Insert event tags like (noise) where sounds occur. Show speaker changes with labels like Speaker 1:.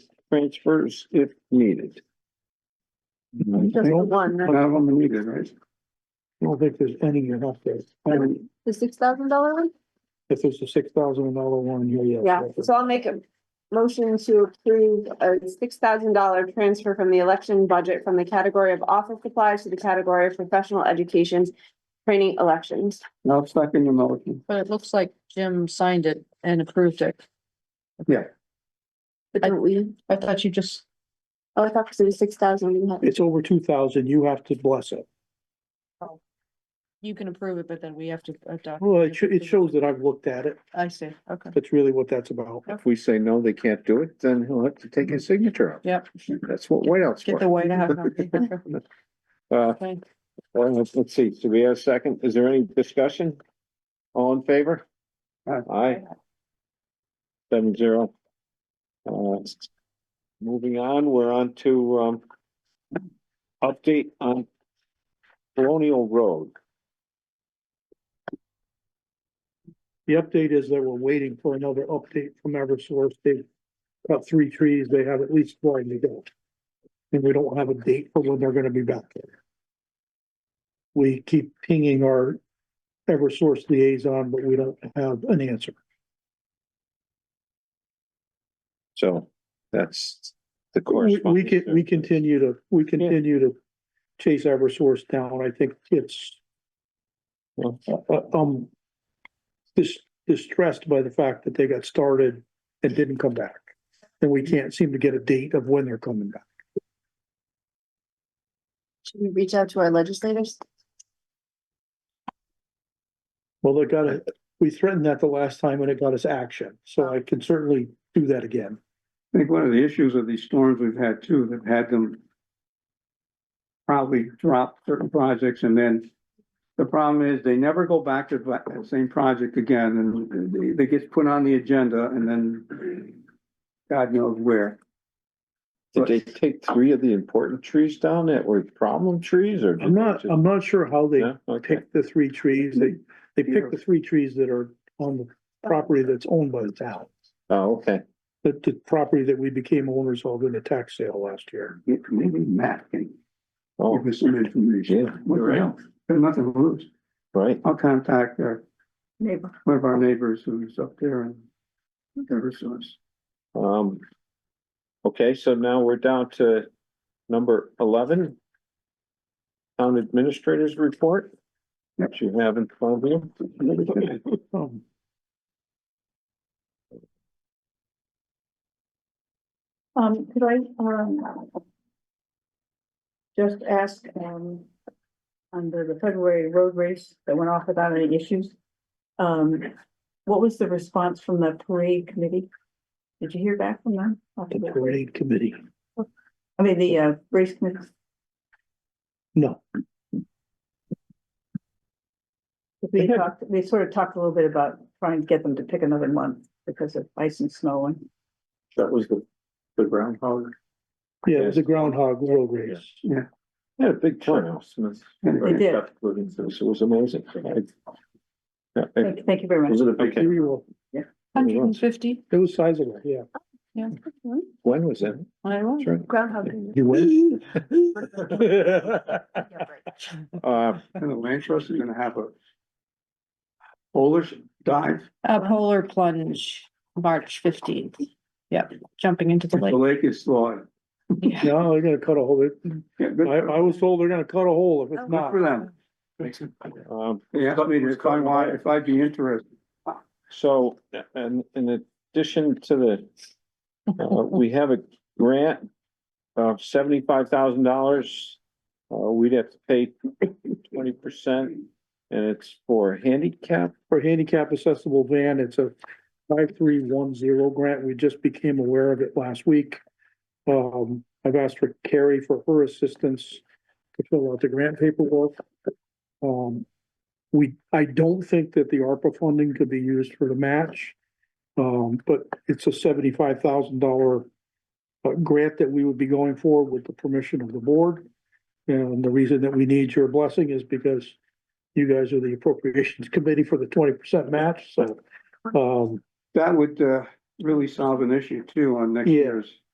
Speaker 1: transfers if needed.
Speaker 2: Just the one,
Speaker 1: None of them are needed, right?
Speaker 3: I don't think there's any you're not there. I mean,
Speaker 2: the six thousand dollar one?
Speaker 3: if there's a six thousand dollar one here, yeah.
Speaker 2: Yeah, so I'll make a motion to approve a six thousand dollar transfer from the election budget from the category of office supplies to the category of professional education training elections.
Speaker 1: Now second your motion.
Speaker 4: But it looks like Jim signed it and approved it.
Speaker 2: But don't we,
Speaker 4: I thought you just,
Speaker 2: oh, I thought because it was six thousand.
Speaker 3: It's over two thousand, you have to bless it.
Speaker 4: you can approve it, but then we have to adopt.
Speaker 3: Well, it, sho- it shows that I've looked at it.
Speaker 4: I see, okay.
Speaker 3: That's really what that's about.
Speaker 1: If we say no, they can't do it, then he'll have to take his signature out.
Speaker 4: Yep,
Speaker 1: That's what White House
Speaker 4: get the
Speaker 1: for.
Speaker 4: White House. on.
Speaker 1: Uh,
Speaker 4: Okay.
Speaker 1: well, let's, Uh, let's see, do we have a second? Is there any discussion? All in favor? Aye. Seven zero. Uh, moving on, we're on to, um, update on Colonial Road.
Speaker 3: The update is that we're waiting for another update from Eversource. They cut three trees, they have at least one to go. And we don't have a date for when they're gonna be back there. We keep pinging our Eversource liaison, but we don't have an answer.
Speaker 1: So that's the
Speaker 3: We,
Speaker 1: correspondence.
Speaker 3: we can, we continue to, we continue to chase Eversource down. I think it's
Speaker 1: Well,
Speaker 3: uh, um dis- distressed by the fact that they got started and didn't come back. And we can't seem to get a date of when they're coming back.
Speaker 2: (laughs) Should we reach out to our legislators?
Speaker 3: Well, they got it, we threatened that the last time and it got us action, so I can certainly do that again.
Speaker 5: I think one of the issues of these storms we've had too, that had them probably drop certain projects and then the problem is they never go back to that that same project again and they- they gets put on the agenda and then God knows where.
Speaker 1: Did they take three of the important trees down that were problem trees or? did
Speaker 3: I'm
Speaker 1: they
Speaker 3: not,
Speaker 1: just-
Speaker 3: I'm not sure how they
Speaker 1: No? Okay.
Speaker 3: picked the three trees, they, they picked the three trees that are on the property that's owned by the town.
Speaker 1: Oh, okay.
Speaker 3: The, the property that we became owners of in the tax sale last year.
Speaker 5: Maybe Matt can
Speaker 1: Oh,
Speaker 5: give us some information.
Speaker 1: yeah,
Speaker 5: What the hell? Got nothing to lose.
Speaker 1: right.
Speaker 5: I'll contact our,
Speaker 2: Neighbor.
Speaker 5: one of our neighbors who's up there and whatever source.
Speaker 1: Um, okay, so now we're down to number eleven. Town Administrator's Report.
Speaker 5: Yep.
Speaker 1: That you have in front of you.
Speaker 3: Um,
Speaker 6: Um, could I, um, just ask, um, under the February road race that went off without any issues, um, what was the response from the parade committee? Did you hear back from them? after
Speaker 3: the
Speaker 6: the parade?
Speaker 3: parade committee,
Speaker 6: I mean, the, uh, race committee,
Speaker 3: no.
Speaker 1: (laughs)
Speaker 6: we talked, we sort of talked a little bit about trying to get them to pick another month because of ice and snow and
Speaker 1: That was the,
Speaker 5: The brown powder.
Speaker 3: Yeah, it was a groundhog road race.
Speaker 1: had a big turnout. It
Speaker 6: They did.
Speaker 1: It was amazing. I- I- I-
Speaker 6: thank, thank you very much.
Speaker 1: Was it a big?
Speaker 3: Maybe we'll-
Speaker 4: Hundred and fifty,
Speaker 3: It was sizable, yeah.
Speaker 1: When was that?
Speaker 4: I was.
Speaker 1: That's right.
Speaker 2: Groundhog.
Speaker 1: (laughs)
Speaker 3: You (laughs) win.
Speaker 1: Uh,
Speaker 5: And the land trust is gonna have a Polish dive,
Speaker 4: A polar plunge, March fifteenth. Yep, jumping into the
Speaker 5: if the
Speaker 4: lake.
Speaker 5: lake is flawed.
Speaker 4: Yeah.
Speaker 3: No, they're gonna cut a hole. It-
Speaker 5: Yeah,
Speaker 3: I,
Speaker 5: good
Speaker 3: I was told they're gonna cut a hole if it's
Speaker 5: good
Speaker 3: not.
Speaker 5: for them.
Speaker 1: um,
Speaker 5: They asked me if I want, if I'd be interested.
Speaker 1: So, and in addition to the, uh, we have a grant of seventy-five thousand dollars. Uh, we'd have to pay twenty percent and it's for handicap.
Speaker 3: For handicap accessible van, it's a five three one zero grant. We just became aware of it last week. Um, I've asked for Carrie for her assistance to fill out the grant paperwork. Um, we, I don't think that the ARPA funding could be used for the match. Um, but it's a seventy-five thousand dollar uh, grant that we would be going for with the permission of the board. And the reason that we need your blessing is because you guys are the appropriations committee for the twenty percent match, so, um,
Speaker 5: That would, uh, really solve an issue too on next
Speaker 3: Yeah.
Speaker 5: year's